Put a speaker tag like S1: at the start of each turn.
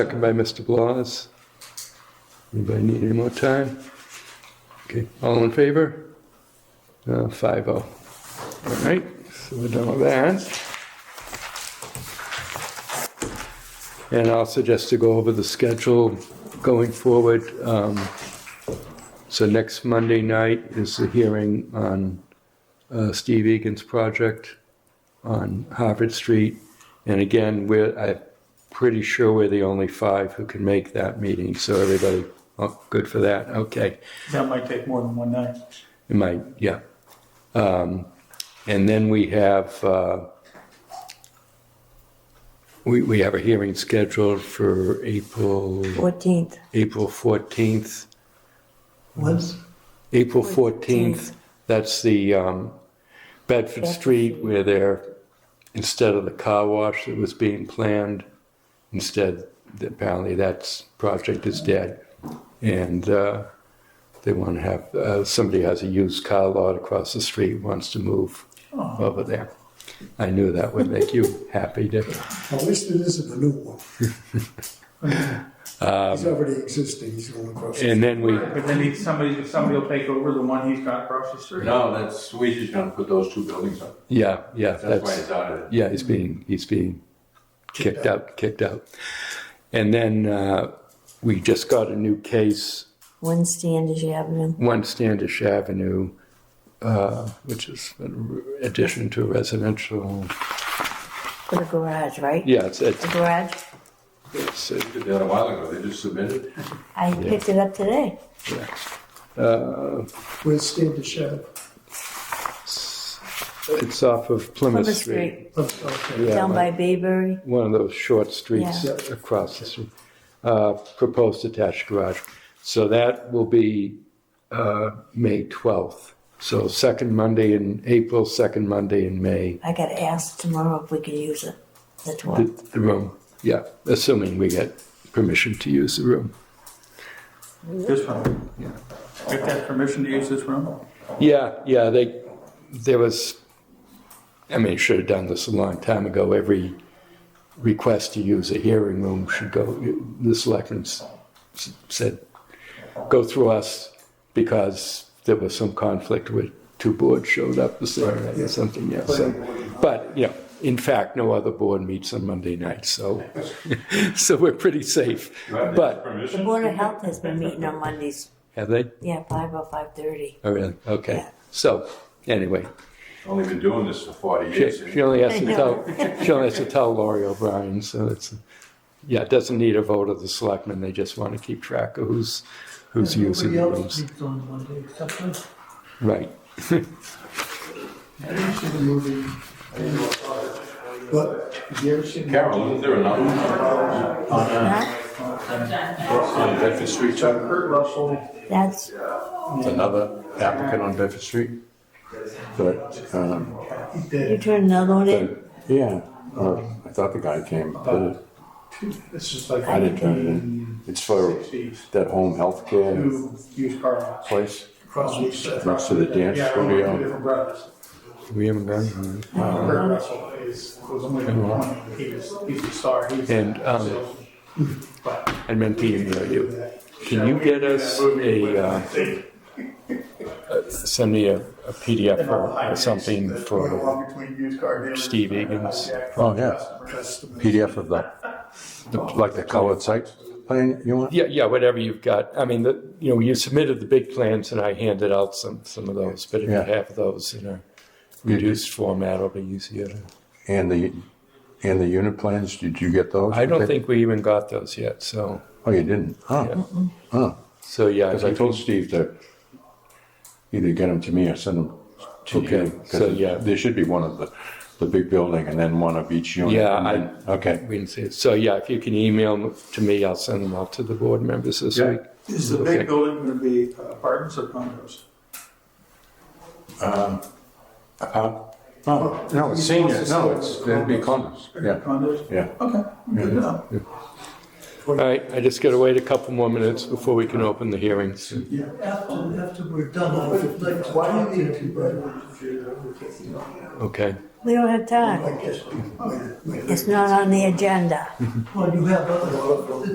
S1: Second by Mr. Blas. Anybody need any more time? Okay, all in favor? Uh, five oh. All right, so we're done with that. And also just to go over the schedule going forward, um, so next Monday night is the hearing on, uh, Steve Egan's project on Harvard Street. And again, we're, I'm pretty sure we're the only five who can make that meeting, so everybody, oh, good for that, okay.
S2: That might take more than one night.
S1: It might, yeah. Um, And then we have, uh, we, we have a hearing scheduled for April,
S3: 14th.
S1: April 14th.
S2: What's?
S1: April 14th,
S3: 14th.
S1: that's the um, Bedford Street where they're, instead of the car wash that was being planned, instead, apparently that project is dead. And uh, they want to have, uh, somebody has a used car lot across the street, wants to move over there. I knew that would make you happy, Dick.
S4: At least it isn't a new one. He's already existing, he's going across. the-
S1: And then we,
S2: But then he, somebody, somebody will take over the one he's got across the street.
S5: No, that's, Sweet is gonna put those two buildings up.
S1: yeah, yeah,
S5: That's why it's
S1: that's,
S5: out of it.
S1: yeah, he's being, he's being kicked out, kicked out. And then uh, we just got a new case,
S3: One Standish Avenue.
S1: One Standish Avenue, uh, which is an addition to residential.
S3: For the garage, right?
S1: Yeah, it's, it's,
S3: The garage.
S1: it's uh,
S5: Did that a while ago, they just submitted.
S3: I picked it up today.
S4: Where's Standish Ave?
S1: it's off of Plymouth
S3: Plymouth
S1: Street.
S3: Street.
S4: Oh, okay.
S1: Yeah,
S3: Down
S1: my-
S3: by Bayberry.
S1: one of those short streets
S3: Yeah.
S1: across the street. Uh, proposed attached garage. So that will be uh, May 12th. So second Monday in April, second Monday in May.
S3: I got asked tomorrow if we could use it. The 12th.
S1: The, the room, yeah, assuming we get permission to use the room.
S2: This room. Get that permission to use this room?
S1: Yeah, yeah, they, there was, I mean, should have done this a long time ago. Every request to use a hearing room should go, the selectmen s- s- said, go through us because there was some conflict with two boards showed up the same night or something, yeah, so. But, you know, in fact, no other board meets on Monday night, so, so we're pretty safe.
S5: Do I have
S1: But,
S3: The
S5: Permission?
S3: Board of Health has been meeting on Mondays.
S1: have they?
S3: Yeah, 5 or 5.30.
S1: Oh, really? Okay.
S3: Yeah.
S1: So, anyway,
S5: Only been doing this for forty
S1: she,
S5: years.
S1: she only has to tell, she only has to tell Lori O'Brien, so it's, yeah, it doesn't need a vote of the selectmen, they just want to keep track of who's, who's using the rooms.
S2: sleeps on Monday except for.
S1: Right.
S6: Have you ever seen the movie?
S4: But
S6: Have you ever seen? the-
S5: Carol, isn't there another one?
S3: Huh?
S5: On Bedford Street, Chuck?
S6: Kurt Russell.
S3: That's,
S5: It's Another applicant on Bedford Street?
S7: But, um,
S6: He
S3: you
S6: did.
S3: turn another one in.
S7: yeah, uh, I thought the guy came, but
S6: This is like.
S7: I didn't turn it in. It's for
S6: Sixties.
S7: that home health care
S6: Two used car lots.
S7: place.
S6: Across the street.
S7: Next to the dance
S6: Yeah, we're
S7: studio.
S6: two different brothers.
S1: We haven't done.
S6: Kurt Russell is, was only one, he was, he's a star, he's.
S1: And, um,
S6: so- But.
S1: I meant to email you. Can you get us a, uh, send me a a PDF or- or something for Steve Egan's-
S7: Oh, yeah. PDF of the, like the colored sites plan you want?
S1: Yeah, yeah, whatever you've got. I mean, the, you know, you submitted the big plans and I handed out some, some of those, but if you
S7: Yeah.
S1: have those in a reduced format, it'll be easier to.
S7: And the, and the unit plans, did you get those?
S1: I don't think we even got those yet, so,
S7: Oh, you didn't? Huh? Huh?
S1: so yeah.
S7: Because I told Steve to either get them to me or send them to you.
S1: Okay,
S7: 'cause
S1: so, yeah.
S7: There should be one of the, the big building and then one of each unit.
S1: Yeah,
S7: and
S1: I-
S7: then- Okay.
S1: We didn't see it. So yeah, if you can email them to me, I'll send them out to the board members this
S5: Yeah.
S1: week.
S2: Is the
S1: Okay.
S2: big building gonna be uh, apartments or condos?
S7: Oh, no, it's senior, no, it's, it'd be condos, yeah,
S2: Condos?
S7: yeah.
S2: Okay, good to know.
S1: All right, I just gotta wait a couple more minutes before we can open the hearings.
S6: After, after we're done,
S4: uh,
S6: I would like to. Why do you need two brothers?
S1: Okay,
S3: We don't have time. It's not on the agenda.
S6: Well, you have other.